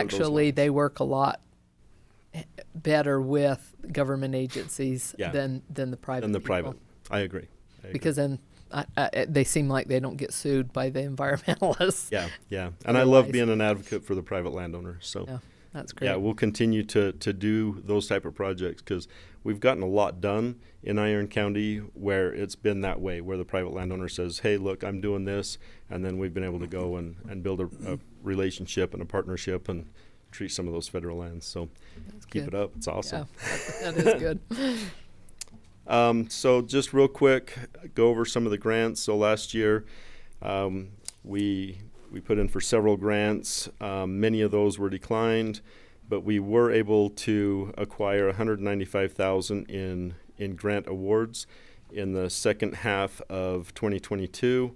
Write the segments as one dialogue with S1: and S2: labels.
S1: actually, they work a lot better with government agencies
S2: Yeah.
S1: than, than the private
S2: And the
S1: people.
S2: private, I agree. I agree.
S1: Because then, I, I, they seem like they don't get sued by the environmentalists.
S2: Yeah, yeah. And I love
S1: Otherwise-
S2: being an advocate for the private landowner, so.
S1: Yeah, That's great.
S2: Yeah, we'll continue to, to do those type of projects because we've gotten a lot done in Iron County where it's been that way, where the private landowner says, hey, look, I'm doing this. And then we've been able to go and, and build a, a relationship and a partnership and treat some of those federal lands. So keep
S1: good.
S2: it up. It's awesome.
S1: Yeah, that- that is good.
S2: Um, so just real quick, go over some of the grants. So last year, um, we we put in for several grants. Um, many of those were declined, but we were able to acquire 195,000 in in grant awards in the second half of 2022.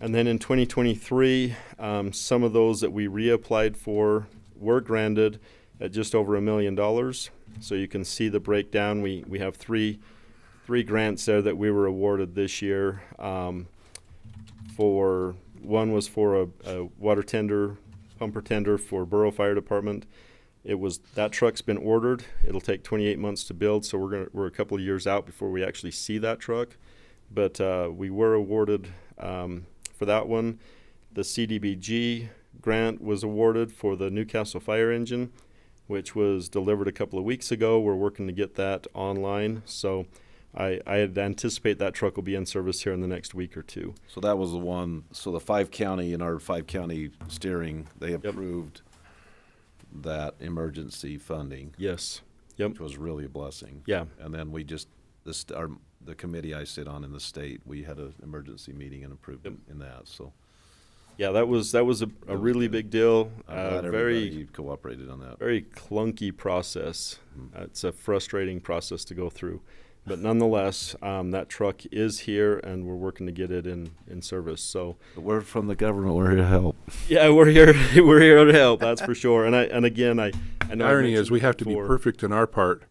S2: And then in 2023, um, some of those that we reapplied for were granted at just over a million dollars. So you can see the breakdown. We, we have three, three grants there that we were awarded this year. Um, for one was for a, a water tender, pumper tender for Borough Fire Department. It was that truck's been ordered. It'll take 28 months to build, so we're gonna we're a couple of years out before we actually see that truck. But uh, we were awarded um, for that one. The CDBG grant was awarded for the Newcastle fire engine, which was delivered a couple of weeks ago. We're working to get that online, so I I anticipate that truck will be in service here in the next week or two.
S3: So that was the one, so the five county, in our five county steering, they approved that emergency funding,
S2: Yes. Yep.
S3: which was really a blessing.
S2: Yeah.
S3: And then we just, this, our, the committee I sit on in the state, we had an emergency meeting and approved it in that, so.
S2: Yeah, that was that was a, a really big deal.
S3: I'm
S2: Uh,
S3: glad
S2: very
S3: everybody cooperated on that.
S2: very clunky process.
S4: Mm-hmm.
S2: Uh, it's a frustrating process to go through, but nonetheless, um, that truck is here, and we're working to get it in in service. So
S3: But We're from the government, we're here to help.
S2: yeah, we're here we're here to help. That's for sure. And I and again, I, I know I
S4: irony
S2: mentioned
S4: is we have to be
S2: before-
S4: perfect in our part,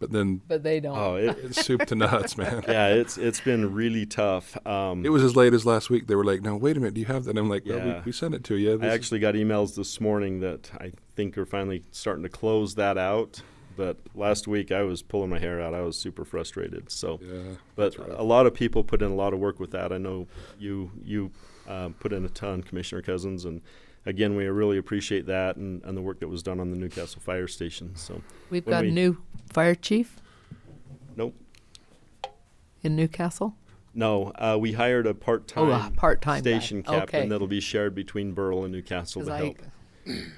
S4: but then
S1: But they don't.
S2: Oh, it,
S4: it's soup to nuts, man.
S2: yeah, it's it's been really tough. Um,
S4: It was as late as last week. They were like, "No, wait a minute, do you have that?" And I'm like, "No,
S2: Yeah.
S4: we, we sent it to you."
S2: I
S4: This is-
S2: actually got emails this morning that I think are finally starting to close that out. But last week I was pulling my hair out. I was super frustrated. So,
S4: Yeah,
S2: but a lot of people put in a lot of work with that. I know you you um, put in a ton, Commissioner Cousins, and again we really appreciate that and, and the work that was done on the Newcastle Fire Station. So,
S1: We've
S2: when
S1: got a
S2: we-
S1: new fire chief
S2: nope,
S1: in Newcastle.
S2: no, uh, we hired a part time
S1: Oh, a part-time guy.
S2: station captain
S1: Okay.
S2: that'll be shared between Burl and Newcastle
S1: 'Cause
S2: to
S1: I
S2: help.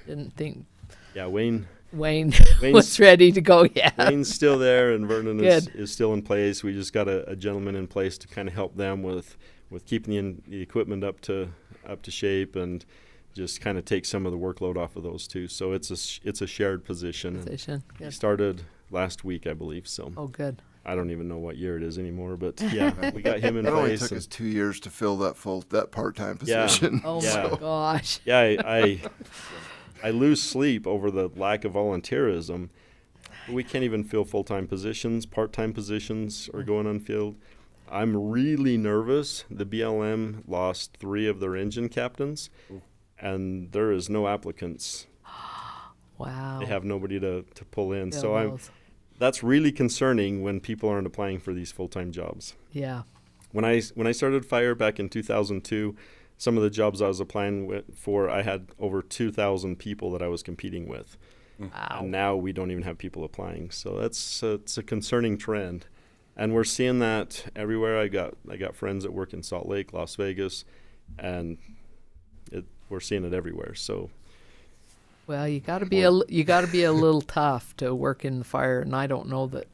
S1: didn't think
S2: Yeah, Wayne Mm.
S1: Wayne
S2: Wayne's-
S1: was ready to go yet.
S2: Wayne's still there, and Vernon is,
S1: Good.
S2: is still in place. We just got a, a gentleman in place to kind of help them with with keeping the, in, the equipment up to up to shape and just kind of take some of the workload off of those two. So it's a sh- it's a shared position. and
S1: Position.
S2: He
S1: Good.
S2: started last week, I believe. So
S1: Oh, good.
S2: I don't even know what year it is anymore, but yeah, we got him in
S5: It only
S2: place.
S5: took
S2: and-
S5: us two years to fill that full that part time
S2: Yeah.
S5: position.
S1: Oh,
S2: Yeah.
S1: my gosh.
S2: yeah, I, I I lose sleep over the lack of volunteerism. We can't even fill full time positions. Part time positions are going unfilled. I'm really nervous. The BLM lost three of their engine captains, and there is no applicants.
S1: Wow.
S2: They have nobody to, to pull in.
S1: Oh. Yeah,
S2: so I'm,
S1: those.
S2: that's really concerning when people aren't applying for these full time jobs
S1: Yeah.
S2: when I when I started fire back in 2002, some of the jobs I was applying wi- for, I had over 2,000 people that I was competing with.
S1: Wow.
S2: And now we don't even have people applying, so that's uh, it's a concerning trend, and we're seeing that everywhere. I got I got friends that work in Salt Lake, Las Vegas, and it, we're seeing it everywhere. So
S1: Well, you got to be a li- you got to be a little tough to work in the fire, and I don't know that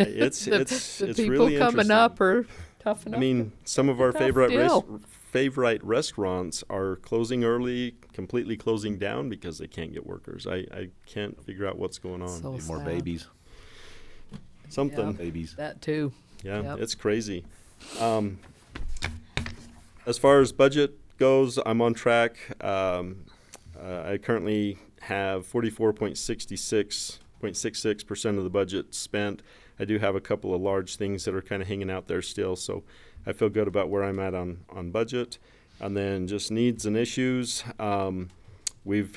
S2: it's
S1: the,
S2: it's
S1: the
S2: it's
S1: people
S2: really
S1: coming
S2: interesting.
S1: up are tough enough.
S2: I mean, some of our
S1: tough
S2: favorite res-
S1: deal.
S2: favorite restaurants are closing early, completely closing down because they can't get workers. I, I can't figure out what's going on.
S1: so
S3: Need more
S1: sad.
S3: babies,
S2: Something.
S3: babies.
S1: That too.
S2: Yeah,
S1: Yep.
S2: it's crazy. Um, as far as budget goes, I'm on track. Um, uh, I currently have 44.66.66 percent of the budget spent. I do have a couple of large things that are kind of hanging out there still, so I feel good about where I'm at on on budget. And then just needs and issues. Um, we've